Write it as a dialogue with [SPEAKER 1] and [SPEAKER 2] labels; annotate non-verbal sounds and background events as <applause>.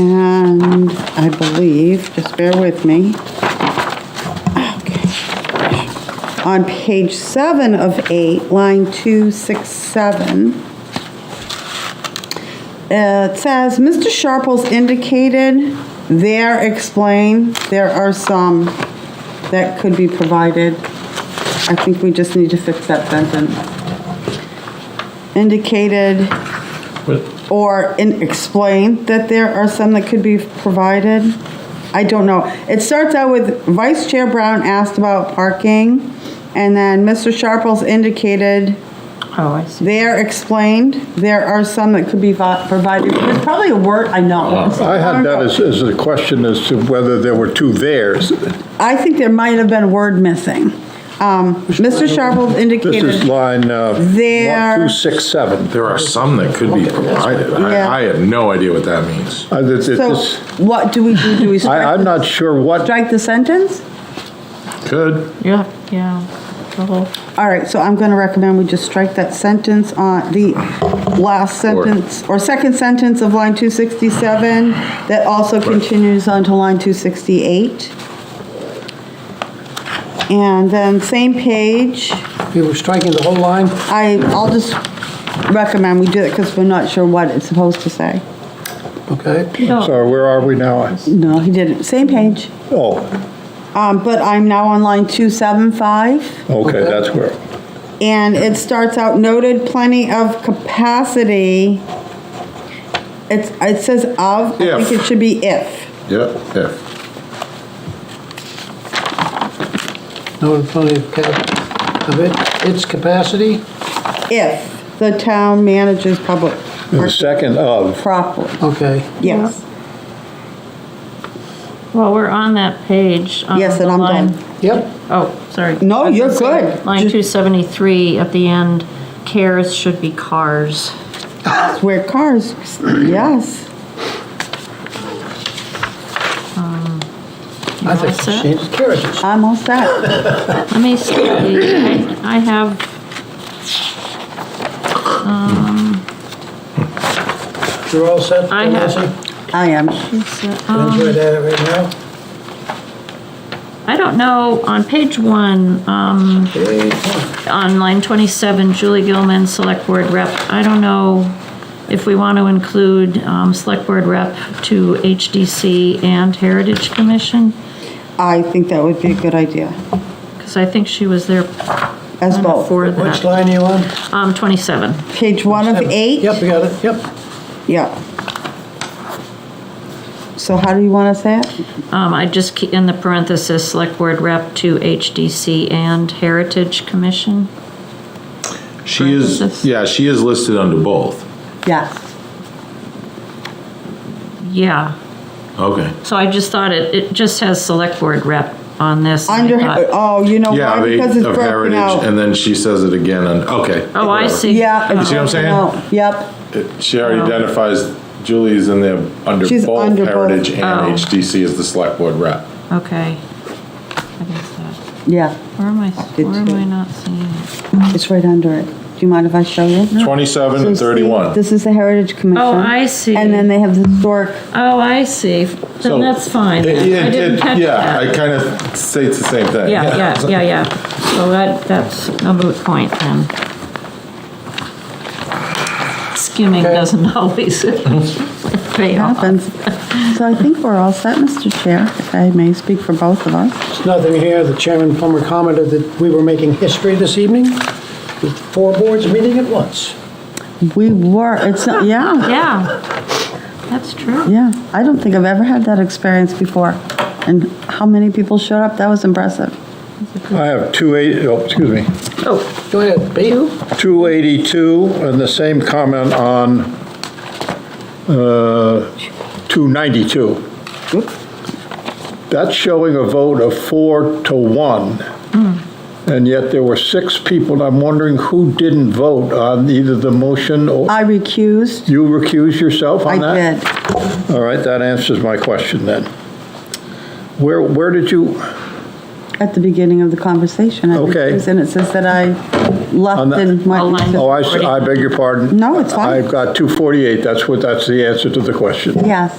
[SPEAKER 1] And I believe, just bear with me. Okay. On page seven of eight, line 267, uh, it says, "Mr. Sharples indicated there explain, there are some that could be provided." I think we just need to fix that sentence. Indicated or in- explain that there are some that could be provided? I don't know. It starts out with Vice Chair Brown asked about parking, and then Mr. Sharples indicated
[SPEAKER 2] Oh, I see.
[SPEAKER 1] there explained there are some that could be vi- provided. It's probably a word, I know.
[SPEAKER 3] I had that as, as a question as to whether there were two theirs.
[SPEAKER 1] I think there might have been a word missing. Um, Mr. Sharples
[SPEAKER 3] This
[SPEAKER 1] indicated.
[SPEAKER 3] is line, uh,
[SPEAKER 1] There-
[SPEAKER 3] 267.
[SPEAKER 4] There are some that could be provided.
[SPEAKER 1] Yeah.
[SPEAKER 4] I, I have no idea what that means.
[SPEAKER 3] I, that- that
[SPEAKER 1] So
[SPEAKER 3] Uh, this-
[SPEAKER 1] what do we do? Do we
[SPEAKER 3] I-
[SPEAKER 1] strike,
[SPEAKER 3] I'm not sure what,
[SPEAKER 1] strike the sentence?
[SPEAKER 4] Could.
[SPEAKER 2] Yeah, yeah. The whole,
[SPEAKER 1] All right, so I'm going to recommend we just strike that sentence on the last sentence, or second sentence of line 267, that also continues on to line 268. And then same page,
[SPEAKER 5] You were striking the whole line?
[SPEAKER 1] I, I'll just recommend we do it because we're not sure what it's supposed to say.
[SPEAKER 5] Okay.
[SPEAKER 3] sorry, where are we now?
[SPEAKER 1] No, he didn't, same page.
[SPEAKER 3] Oh,
[SPEAKER 1] Um, But I'm now on line 275.
[SPEAKER 3] okay, that's where.
[SPEAKER 1] And it starts out noted plenty of capacity. It's, it says of, I think
[SPEAKER 4] If.
[SPEAKER 1] it should be if.
[SPEAKER 4] Yep, if.
[SPEAKER 5] No, plenty of cap, of it, its capacity?
[SPEAKER 1] If the town manages public
[SPEAKER 3] The second of,
[SPEAKER 1] properly.
[SPEAKER 5] Okay.
[SPEAKER 1] Yes,
[SPEAKER 2] well, we're on that page. um,
[SPEAKER 1] yes, and
[SPEAKER 2] the
[SPEAKER 1] I'm
[SPEAKER 2] line-
[SPEAKER 1] done.
[SPEAKER 5] Yep,
[SPEAKER 2] Oh, sorry.
[SPEAKER 1] No,
[SPEAKER 2] I was
[SPEAKER 1] you're
[SPEAKER 2] gonna say,
[SPEAKER 1] good.
[SPEAKER 2] Line
[SPEAKER 1] Ju-
[SPEAKER 2] 273 at the end, cares should be cars.
[SPEAKER 1] That's where cars, yes.
[SPEAKER 2] You
[SPEAKER 5] I
[SPEAKER 2] all
[SPEAKER 5] think
[SPEAKER 2] set?
[SPEAKER 5] she changes carriages.
[SPEAKER 1] I'm all set.
[SPEAKER 2] Let me see, I I have.
[SPEAKER 5] You're all set?
[SPEAKER 2] I have-
[SPEAKER 5] Nancy?
[SPEAKER 1] I am.
[SPEAKER 2] it's, uh, um,
[SPEAKER 5] Enjoy that right now.
[SPEAKER 2] I don't know, on page one, um, on line 27, Julie Gilman, Select Board Rep, I don't know if we want to include um, Select Board Rep to HDC and Heritage Commission,
[SPEAKER 1] I think that would be a good idea,
[SPEAKER 2] because I think she was there
[SPEAKER 1] as both.
[SPEAKER 2] before
[SPEAKER 5] Which
[SPEAKER 2] that.
[SPEAKER 5] line are you on?
[SPEAKER 2] Um, 27.
[SPEAKER 1] Page one of eight?
[SPEAKER 5] Yep, you got it, yep.
[SPEAKER 1] Yeah. So how do you want to say it?
[SPEAKER 2] Um, I just, ke- in the parenthesis, Select Board Rep to HDC and Heritage Commission.
[SPEAKER 4] She is,
[SPEAKER 2] Parentheses.
[SPEAKER 4] yeah, she is listed under both.
[SPEAKER 1] Yes.
[SPEAKER 2] Yeah,
[SPEAKER 4] Okay.
[SPEAKER 1] Oh,
[SPEAKER 2] so I just thought it, it just has Select Board Rep on this. and I
[SPEAKER 1] Under, oh,
[SPEAKER 2] thought-
[SPEAKER 1] you know
[SPEAKER 4] Yeah,
[SPEAKER 1] why?
[SPEAKER 4] they-
[SPEAKER 1] Because it's
[SPEAKER 4] of
[SPEAKER 1] broken
[SPEAKER 4] heritage,
[SPEAKER 1] out.
[SPEAKER 4] and then she says it again, and, okay.
[SPEAKER 2] Oh, I
[SPEAKER 4] whatever.
[SPEAKER 2] see.
[SPEAKER 1] Yeah. it's
[SPEAKER 4] You see what I'm
[SPEAKER 1] broken
[SPEAKER 4] saying?
[SPEAKER 1] out. Yep.
[SPEAKER 4] It- She already identifies Julie's in there under
[SPEAKER 1] Oh. She's
[SPEAKER 4] both
[SPEAKER 1] under both.
[SPEAKER 4] heritage and
[SPEAKER 2] Oh.
[SPEAKER 4] HDC as the select board rep.
[SPEAKER 2] Okay. I guess that,
[SPEAKER 1] Yeah,
[SPEAKER 2] where am I,
[SPEAKER 1] Did
[SPEAKER 2] where am
[SPEAKER 1] you-
[SPEAKER 2] I not seeing it?
[SPEAKER 1] it's right under it. Do you mind if I show you?
[SPEAKER 4] Twenty-seven and
[SPEAKER 1] So see,
[SPEAKER 4] thirty-one.
[SPEAKER 1] This is the Heritage Commission.
[SPEAKER 2] Oh, I see.
[SPEAKER 1] And then they have the
[SPEAKER 2] <laughs>
[SPEAKER 1] historic,
[SPEAKER 2] Oh, I see.
[SPEAKER 4] So-
[SPEAKER 2] Then that's fine.
[SPEAKER 4] It-
[SPEAKER 2] I
[SPEAKER 4] it-
[SPEAKER 2] didn't
[SPEAKER 4] it-
[SPEAKER 2] catch
[SPEAKER 4] Yeah, I
[SPEAKER 2] that.
[SPEAKER 4] kind of say it's the same thing.
[SPEAKER 2] Yeah, yeah, yeah, yeah. So that, that's a moot point then. Skimming
[SPEAKER 5] Okay.
[SPEAKER 2] doesn't <laughs>
[SPEAKER 4] <laughs>
[SPEAKER 2] always pay off.
[SPEAKER 1] happens. So I think we're all set, Mr. Chair, if I may speak for both of us.
[SPEAKER 5] There's nothing here. The Chairman Plummer commented that we were making history this evening with four boards meeting at once.
[SPEAKER 1] We were, it's, not- yeah,
[SPEAKER 2] Yeah, that's true.
[SPEAKER 1] yeah. I don't think I've ever had that experience before. And how many people showed up? That was impressive.
[SPEAKER 3] I have 28, oh, excuse me,
[SPEAKER 2] Oh,
[SPEAKER 5] Go ahead, Pete.
[SPEAKER 3] 282, and the same comment on uh, 292. That's showing a vote of four to one,
[SPEAKER 1] Hmm.
[SPEAKER 3] and yet there were six people, and I'm wondering who didn't vote on either the motion or,
[SPEAKER 1] I recused.
[SPEAKER 3] you recused yourself
[SPEAKER 1] I
[SPEAKER 3] on that?
[SPEAKER 1] did.
[SPEAKER 3] All right, that answers my question then. Where, where did you,
[SPEAKER 1] At the beginning of the conversation. I
[SPEAKER 3] Okay.
[SPEAKER 1] recused, And it says that I
[SPEAKER 3] On
[SPEAKER 1] left
[SPEAKER 3] the-
[SPEAKER 1] and
[SPEAKER 2] Oh,
[SPEAKER 1] went.
[SPEAKER 2] line
[SPEAKER 1] into-
[SPEAKER 3] oh, I s- I beg your pardon?
[SPEAKER 1] No, it's fine.
[SPEAKER 3] I've got 248, that's what, that's the answer to the question.
[SPEAKER 1] Yes.